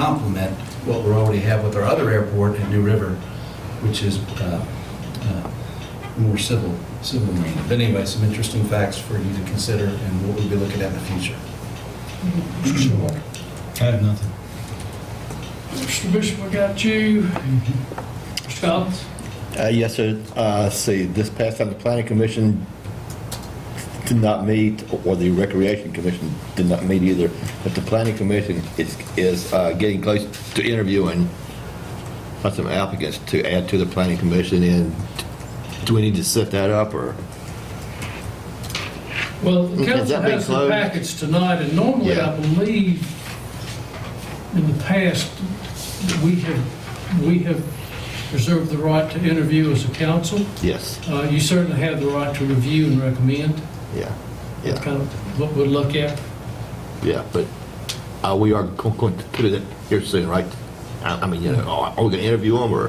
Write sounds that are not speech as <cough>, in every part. complement what we already have with our other airport at New River, which is uh, uh, more civil, civil marine. But anyway, some interesting facts for you to consider and what we'll be looking at in the future. I have nothing. Mr. Bishop, I got you. Mr. Collins? Uh, Yes, sir. Uh, let's See, this past time, the planning commission did not meet, or the recreation commission did not meet either, but the planning commission is, is uh, getting close to interviewing uh, some applicants to add to the planning commission, and do we need to set that up, or? Well, the Okay, has council that been has the closed? packets tonight, and normally, I Yeah. believe, in the past, we have, we have reserved the right to interview as a council. Yes, Uh, You certainly have the right to review and recommend. yeah, That's yeah, kind of what we look at. yeah, but uh, we are go- going to do that here soon, right? I I mean, you know, are are we going to interview them, or?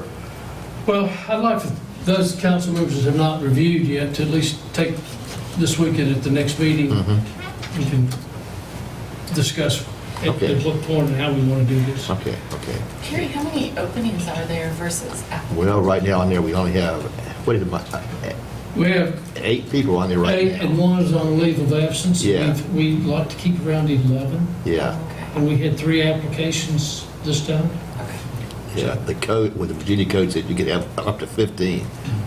Well, I'd like for those council members that have not reviewed yet to at least take this weekend at the next meeting, we can discuss at Mm-hmm. Okay. at what point and how we want to do this. Okay, okay. Terry, how many openings are there versus applicants? Well, right now on there, we only have, what is it, my- uh, We have eight people on there right eight now? and one is on leave of absence. Yeah. We've- We like to keep around 11, Yeah, Okay, and we had three applications this time. okay. yeah, the code, with the Virginia code said you could have up to 15,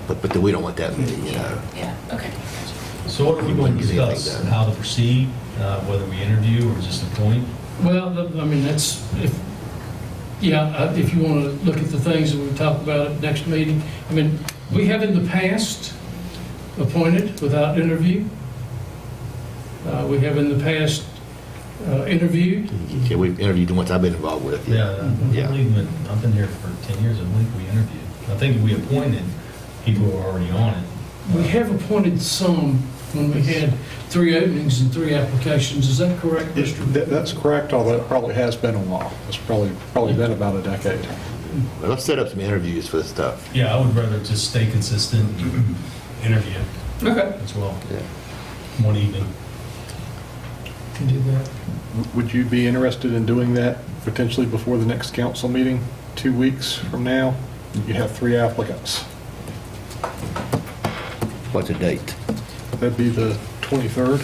but, but then we don't want that many, you know? Yeah, okay. So what are we going to You wouldn't get anything discuss? done. How to proceed, uh, whether we interview or just appoint? Well, th- I mean, that's, if, yeah, uh, if you want to look at the things that we talk about at next meeting, I mean, we have in the past appointed without interview. Uh, We have in the past uh, interviewed. Yeah, we've interviewed the ones I've been involved with. Mm-hmm. Yeah, Uh, I Yeah. believe it, I've been here for 10 years, I believe we interviewed. I think we appointed people who are already on it. We have appointed some when we had three openings and three applications. Is that correct, Mr.? That- That's correct, although it probably has been a while. It's probably, probably been about a decade. Well, Let's set up some interviews for this stuff. Yeah, I would rather just stay consistent, <clears throat> and interview Okay. as well, Yeah. one evening. Can do that. Would you be interested in doing that potentially before the next council meeting, two weeks from now? You have three applicants. What's the date? That'd be the 23rd.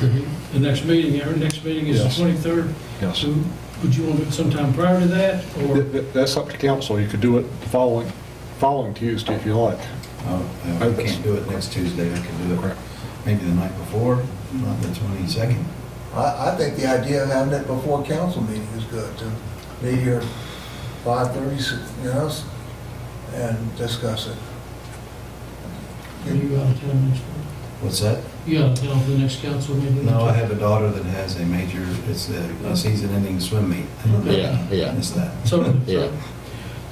The- The next meeting, our next meeting is the Yes. 23rd. Yes. So Would you want to do it sometime prior to that, or? That's up to council. You could do it the following, following Tuesday if you like. Uh, I can't do it next Tuesday, I can do it maybe the night before, not the 22nd. I, I think the idea of having it before council meeting is good, to be here five thirty, you know, s- and discuss it. Are you out of town next week? What's that? You out of town for the next council meeting? No, I have a daughter that has a major, it's a a season-ending swim meet. Yeah, yeah. It's that. So, Yeah.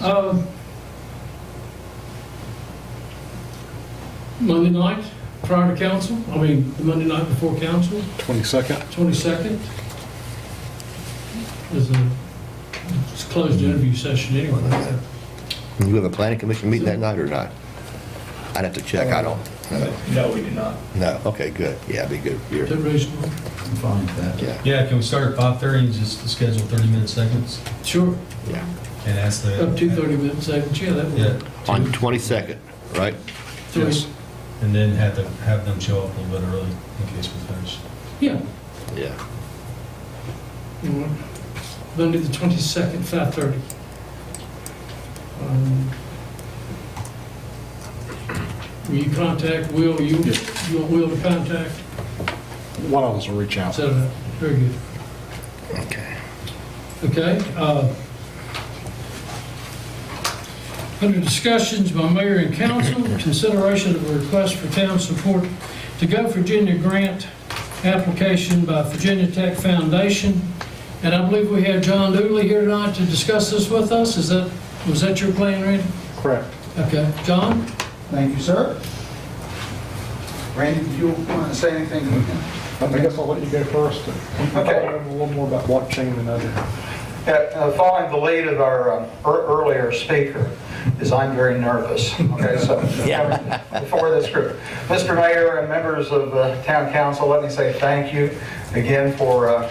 um, Monday night, prior to council, I mean, the Monday night before council, 22nd, 22nd, is a, it's a closed interview session anyway. You have a planning commission meeting that night or not? I'd have to check, I don't, know. No, we do not. no, okay, good, yeah, it'd be good. Is that You're- reasonable? I'm fine with that. Yeah, Yeah, can we start at 5:30 and just schedule 30-minute segments? Sure, yeah. And ask the... up to 30 minutes, seconds, yeah, that Yeah, would. On 22nd, right? Three. yes. and then have them, have them show up a little bit early in case we finish. Yeah. Yeah. You want Monday, the 22nd, 5:30. Um, Will you contact Will? You, Yeah. you want Will to contact? One of us will reach out. Set it up. Very good. Okay. Okay. uh, Under discussions by mayor and council, consideration of a request for town support to Go Virginia grant application by Virginia Tech Foundation. And I believe we have John Dooley here tonight to discuss this with us. Is that, was that your plan, Randy? Correct. Okay. John? Thank you, sir. Randy, do you want to say anything? I guess I'll let you go first. Okay. A little more about blockchain than I do. Uh, uh, Following the lead of our um, ear- earlier speaker, is I'm very nervous. Okay, so <laughs> before this group. Mr. Mayor and members of uh, Town Council, let me say thank you again for uh,